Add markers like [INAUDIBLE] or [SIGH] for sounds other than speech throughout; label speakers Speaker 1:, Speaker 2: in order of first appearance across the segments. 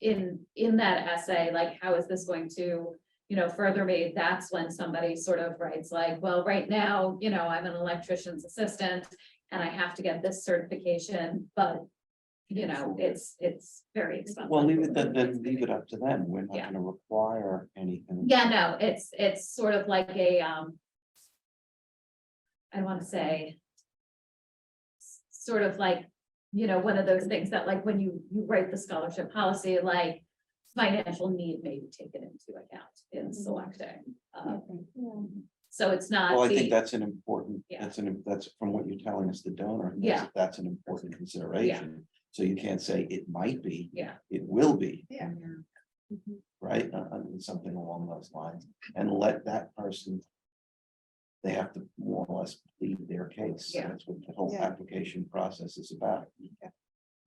Speaker 1: in, in that essay, like, how is this going to, you know, further me? That's when somebody sort of writes like, well, right now, you know, I'm an electrician's assistant and I have to get this certification, but, you know, it's, it's very expensive.
Speaker 2: Well, leave it then, then leave it up to them. We're not
Speaker 1: Yeah.
Speaker 2: gonna require anything.
Speaker 1: Yeah, no, it's, it's sort of like a, um. I wanna say. s- Sort of like, you know, one of those things that like when you, you write the scholarship policy, like. Financial need may be taken into account
Speaker 2: Mm-hmm.
Speaker 1: in selecting, uh,
Speaker 3: Hmm.
Speaker 1: so it's not.
Speaker 2: Well, I think
Speaker 1: the-
Speaker 2: that's an important,
Speaker 1: Yeah.
Speaker 2: that's an, that's from what you're telling us, the donor. that's-
Speaker 1: Yeah.
Speaker 2: That's an important consideration. So you can't say it might be,
Speaker 1: Yeah,
Speaker 2: it will be,
Speaker 3: Yeah.
Speaker 2: right? Uh, uh, something along those lines and let that person. They have to more or less plead their case.
Speaker 1: Yeah.
Speaker 2: That's what the whole
Speaker 3: Yeah.
Speaker 2: application process is about.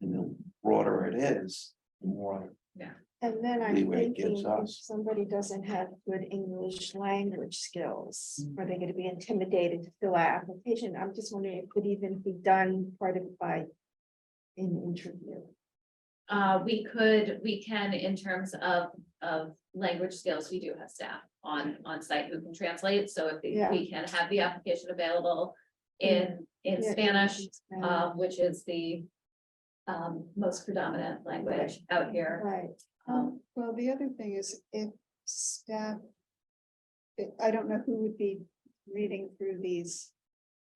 Speaker 2: And the broader it is, the more,
Speaker 3: And then I'm
Speaker 2: Leeway it
Speaker 3: thinking,
Speaker 2: gives
Speaker 3: if
Speaker 2: us.
Speaker 3: somebody doesn't have good English language skills,
Speaker 4: Hmm.
Speaker 2: Mm.
Speaker 3: are they gonna be intimidated to fill out application? I'm just wondering, if it could even be done part of by an interview.
Speaker 1: uh, we could, we can in terms of, of language skills, we do have staff on, on site who can translate, so if we-
Speaker 3: Yeah.
Speaker 1: we can have the application available. In, in
Speaker 3: Yeah,
Speaker 1: Spanish,
Speaker 3: Spanish.
Speaker 1: um, which is the um, most predominant language out here.
Speaker 3: Right,
Speaker 1: Um,
Speaker 4: Um, well, the other thing is if staff. I- I don't know who would be reading through these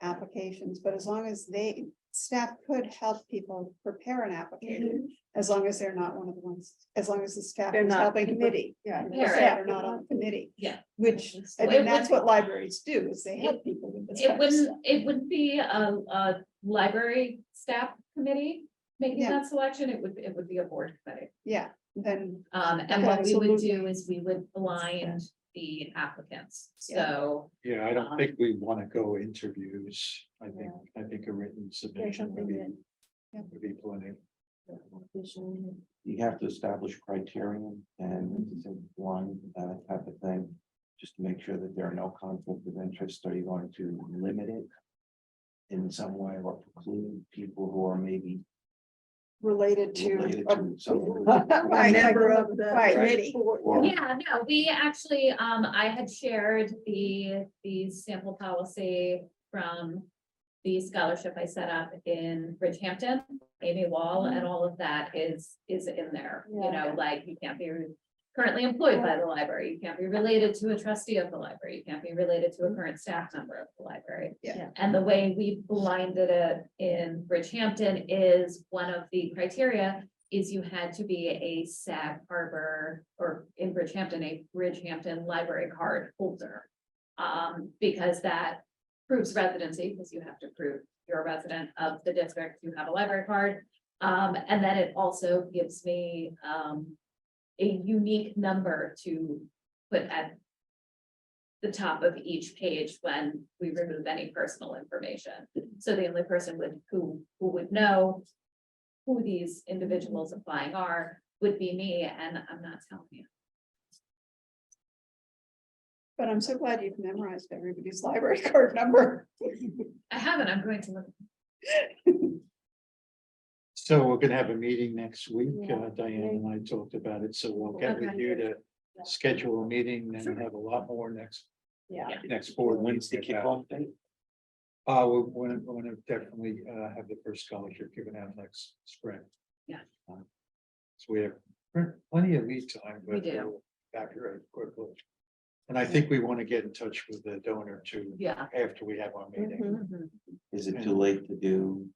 Speaker 4: applications, but as long as they, staff could help people prepare an application. As long as they're not one of the ones, as long as the staff
Speaker 3: They're
Speaker 4: is
Speaker 3: not
Speaker 4: helping to prepare.
Speaker 3: committee, yeah.
Speaker 1: Prepare it.
Speaker 4: They're not on the committee.
Speaker 1: Yeah.
Speaker 4: Which, I
Speaker 1: It
Speaker 4: mean, that's
Speaker 1: would-
Speaker 4: what libraries do, is they help people with this.
Speaker 1: It
Speaker 4: kind of stuff.
Speaker 1: wouldn't, it wouldn't be a, a library staff committee making
Speaker 4: Yeah.
Speaker 1: that selection, it would, it would be a board committee.
Speaker 4: Yeah, then,
Speaker 1: Um, and what we would do
Speaker 4: Absolutely.
Speaker 1: is we would blind the applicants, so.
Speaker 5: Yeah, I
Speaker 1: Um,
Speaker 5: don't think we want to go interviews. I think, I think a written submission
Speaker 3: something
Speaker 5: would be,
Speaker 3: that-
Speaker 4: yeah.
Speaker 5: would be plenty.
Speaker 2: you have to establish criterion and this is one, uh, type of thing. Just to make sure that there are no conflict of interest. Are you going to limit it? In some way or preclude people who are maybe
Speaker 4: related to.
Speaker 2: related to something.
Speaker 4: A member of the committee.
Speaker 2: Or-
Speaker 1: Yeah, no, we actually, um, I had shared the, the sample policy from the scholarship I set up in Bridgehampton, Amy Wall, and all of that is, is in there. You know,
Speaker 3: Yeah.
Speaker 1: like you can't be currently employed by the library, you can't be related to a trustee of the library, you can't be related to a current staff member of the library.
Speaker 4: Yeah.
Speaker 3: Yeah.
Speaker 1: And the way we blinded it in Bridgehampton is one of the criteria is you had to be a Sag Harbor or in Bridgehampton, a Bridgehampton library card holder. Um, because that proves residency, because you have to prove you're a resident of the district, you have a library card. Um, and then it also gives me, um, a unique number to put at the top of each page when we remove any personal information. So the only person would, who, who would know who these individuals applying are would be me, and I'm not telling you.
Speaker 4: But I'm so glad you've memorized everybody's library [LAUGHS]
Speaker 2: [LAUGHS]
Speaker 4: card number.
Speaker 1: I haven't, I'm going to look.
Speaker 5: So we're gonna have a meeting next week.
Speaker 3: Yeah.
Speaker 5: Uh, Diane and I talked about it, so we'll get with
Speaker 1: Okay.
Speaker 5: you to schedule a meeting and have a lot more next,
Speaker 3: Yeah.
Speaker 5: next
Speaker 2: Or
Speaker 5: board. meeting
Speaker 2: when's the
Speaker 5: about-
Speaker 2: kickoff date?
Speaker 5: Uh, we want to, want to definitely, uh, have the first scholarship given out next spring.
Speaker 1: Yeah.
Speaker 5: Um, So we have plenty of lead time,
Speaker 1: We
Speaker 5: but
Speaker 1: do.
Speaker 5: we'll accurate quickly. And I think we want to get in touch with the donor too,
Speaker 1: Yeah.
Speaker 5: after we have our meeting.
Speaker 3: Mhm.
Speaker 1: mhm.
Speaker 2: Is it too late to do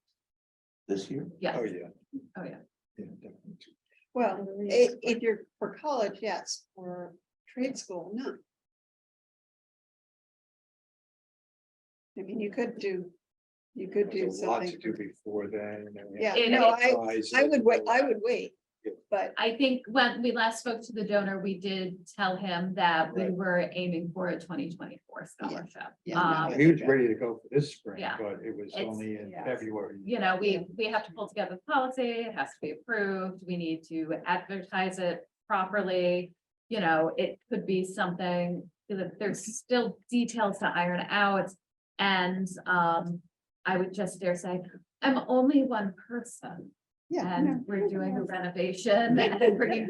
Speaker 2: this year?
Speaker 1: Yeah,
Speaker 5: Oh, yeah.
Speaker 1: oh, yeah.
Speaker 5: Yeah, definitely.
Speaker 4: Well, i- if you're for college, yes, for trade school, no. I mean, you could do, you could do
Speaker 5: There's a lot to
Speaker 4: something.
Speaker 5: do before then. and then we
Speaker 4: Yeah,
Speaker 5: have
Speaker 1: It-
Speaker 4: no, I,
Speaker 5: to
Speaker 4: I would wait, I would wait,
Speaker 5: Yeah.
Speaker 4: but
Speaker 1: I think when we last spoke to the donor, we did tell him that we
Speaker 5: Right.
Speaker 1: were aiming for a twenty twenty-four scholarship.
Speaker 4: Yeah, no,
Speaker 1: Um,
Speaker 4: I-
Speaker 5: He was ready to go for this spring,
Speaker 1: Yeah.
Speaker 5: but it was
Speaker 1: It's-
Speaker 5: only in
Speaker 3: yeah.
Speaker 5: February.
Speaker 1: you know, we, we have to pull together the policy, it has to be approved, we need to advertise it properly. You know, it could be something, that there's still details to iron out. And, um, I would just dare say, I'm only one person
Speaker 4: yeah. no.
Speaker 1: and we're doing a renovation and bringing